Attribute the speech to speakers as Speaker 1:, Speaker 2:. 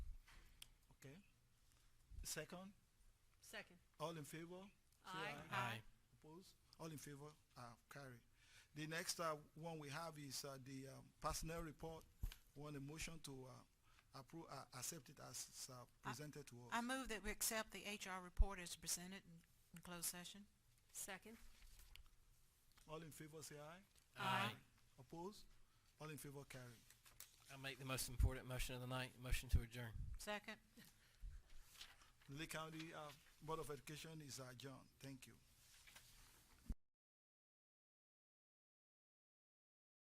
Speaker 1: second?
Speaker 2: Second.
Speaker 1: All in favor? Say
Speaker 2: Aye.
Speaker 3: Aye.
Speaker 1: Opposed? All in favor? Uh, carry. The next, uh, one we have is, uh, the, um, personnel report. Want a motion to, uh, approve, uh, accept it as, it's, uh, presented to us.
Speaker 3: I move that we accept the HR report as presented in, in closed session.
Speaker 2: Second.
Speaker 1: All in favor, say aye.
Speaker 2: Aye.
Speaker 1: Opposed? All in favor, carry.
Speaker 4: I make the most important motion of the night, motion to adjourn.
Speaker 3: Second?
Speaker 1: Lee County, uh, Board of Education is adjourned. Thank you.